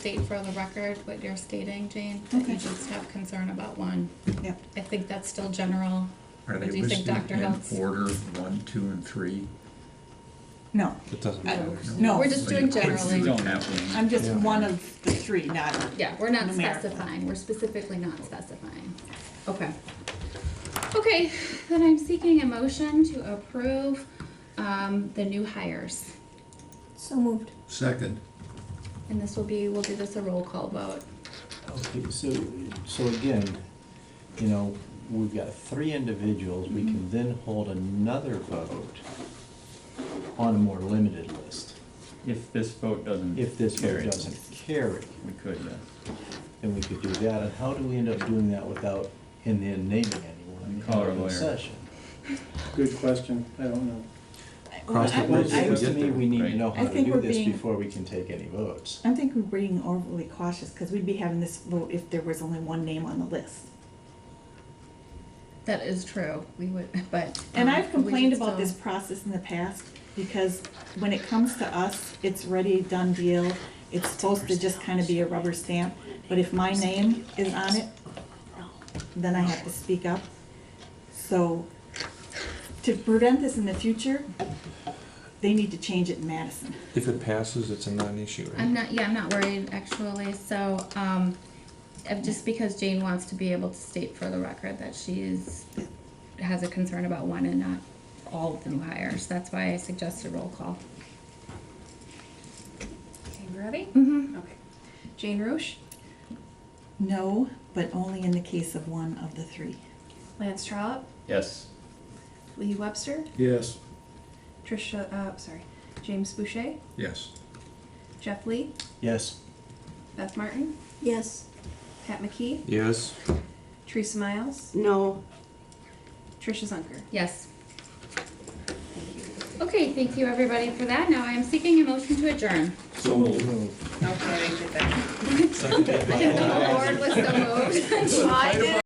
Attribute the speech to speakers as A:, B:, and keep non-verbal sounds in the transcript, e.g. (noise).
A: state for the record what you're stating, Jane, that you
B: Okay.
A: just have concern about one.
B: Yep.
A: I think that's still general.
C: Are they
A: Do you think
C: listed
A: Dr.
C: in
A: Helps?
C: order one, two, and three?
B: No,
D: It doesn't
B: I-
D: matter.
B: No.
A: We're just
C: So you
A: doing
C: could do
A: generally.
C: it that way.
B: I'm just
D: Yeah.
B: one of the three, not,
A: Yeah, we're not
B: Numerical.
A: specifying, we're specifically not specifying. Okay. Okay, then I'm seeking a motion to approve, um, the new hires.
E: So moved.
F: Second,
A: And this will be, we'll do this a roll call vote.
G: Okay, so, so again, you know, we've got three individuals, we can then hold another vote on a more limited list.
H: If this vote doesn't
G: If this vote
H: carry,
G: doesn't carry,
H: We could, yes.
G: then we could do that, and how do we end up doing that without, and then naming anyone in
H: Call our
G: the
H: lawyer.
G: session?
I: Good question, I don't know.
G: Cross the
B: I-
G: bridge,
B: I-
G: seems to me, we need to know
B: I
G: how to
B: think
G: do
B: we're
G: this
B: being-
G: before we can take any votes.
B: I think we're being overly cautious, because we'd be having this vote if there was only one name on the list.
A: That is true, we would, (laughs) but.
B: And
A: um,
B: I've
A: we
B: complained
A: should
B: about this
A: still-
B: process in the past, because when it comes to us, it's ready, done deal. It's supposed to just kind of be a rubber stamp, but if my name is on it, then I have to speak up. So, to prevent this in the future, they need to change it in Madison.
D: If it passes, it's a non-issue, right?
A: I'm not, yeah, I'm not worried actually, so, um, uh, just because Jane wants to be able to state for the record that she is, has a concern about one and not all of the new hires, that's why I suggested roll call.
E: Okay, you ready?
A: Mm-hmm.
E: Okay. Jane Roche,
B: No, but only in the case of one of the three.
E: Lance Trollope,
H: Yes.
E: Lee Webster,
I: Yes.
E: Trisha, uh, sorry, James Boucher,
C: Yes.
E: Jeff Lee,
G: Yes,
E: Beth Martin,
J: Yes.
E: Pat McKee,
D: Yes,
E: Teresa Miles,
J: No.
E: Trisha Zunker.
A: Yes. Okay, thank you everybody for that, now I am seeking a motion to adjourn.
B: Okay, I get that.
A: The board was so moved.
E: I did